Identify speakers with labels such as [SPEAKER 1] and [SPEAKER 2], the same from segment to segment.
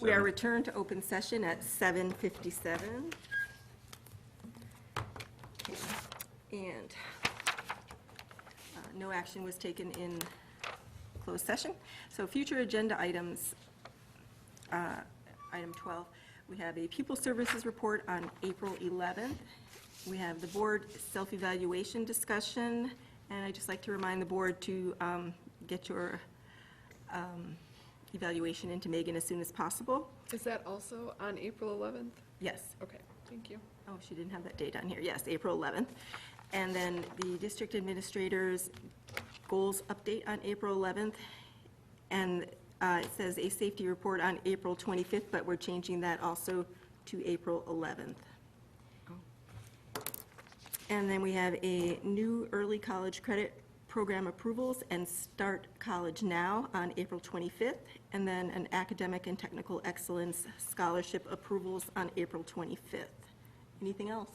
[SPEAKER 1] We are returned to open session at 7:57. And uh, no action was taken in closed session. So future agenda items, uh, item 12, we have a pupil services report on April 11th. We have the board self-evaluation discussion, and I'd just like to remind the board to um, get your um, evaluation into Megan as soon as possible.
[SPEAKER 2] Is that also on April 11th?
[SPEAKER 1] Yes.
[SPEAKER 2] Okay, thank you.
[SPEAKER 1] Oh, she didn't have that date on here. Yes, April 11th. And then the district administrator's goals update on April 11th. And uh, it says a safety report on April 25th, but we're changing that also to April 11th. And then we have a new early college credit program approvals and Start College Now on April 25th, and then an academic and technical excellence scholarship approvals on April 25th. Anything else?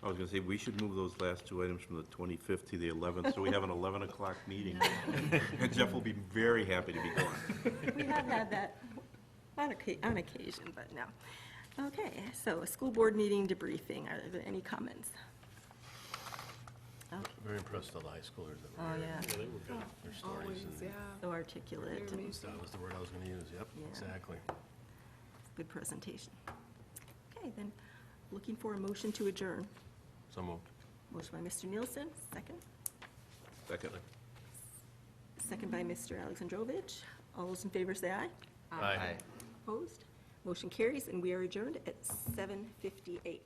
[SPEAKER 3] I was gonna say, we should move those last two items from the 25th to the 11th, so we have an 11 o'clock meeting. And Jeff will be very happy to be gone.
[SPEAKER 1] We have had that on occa- on occasion, but no. Okay, so a school board meeting debriefing. Are there any comments?
[SPEAKER 4] Very impressed with the high schoolers that
[SPEAKER 1] Oh,
[SPEAKER 4] were there.
[SPEAKER 1] yeah.
[SPEAKER 4] They were good. Their stories
[SPEAKER 2] Always,
[SPEAKER 4] and,
[SPEAKER 2] yeah.
[SPEAKER 1] So articulate
[SPEAKER 2] They're
[SPEAKER 1] and
[SPEAKER 2] amazing.
[SPEAKER 4] that was the word I was gonna use, yep,
[SPEAKER 1] Yeah.
[SPEAKER 4] exactly.
[SPEAKER 1] good presentation. Okay, then, looking for a motion to adjourn.
[SPEAKER 4] So moved.
[SPEAKER 1] Motion by Mr. Nielsen, second.
[SPEAKER 3] Second.
[SPEAKER 1] Second by Mr. Alexandrovich. All those in favor say aye.
[SPEAKER 4] Aye.
[SPEAKER 1] Opposed? Motion carries, and we are adjourned at 7:58.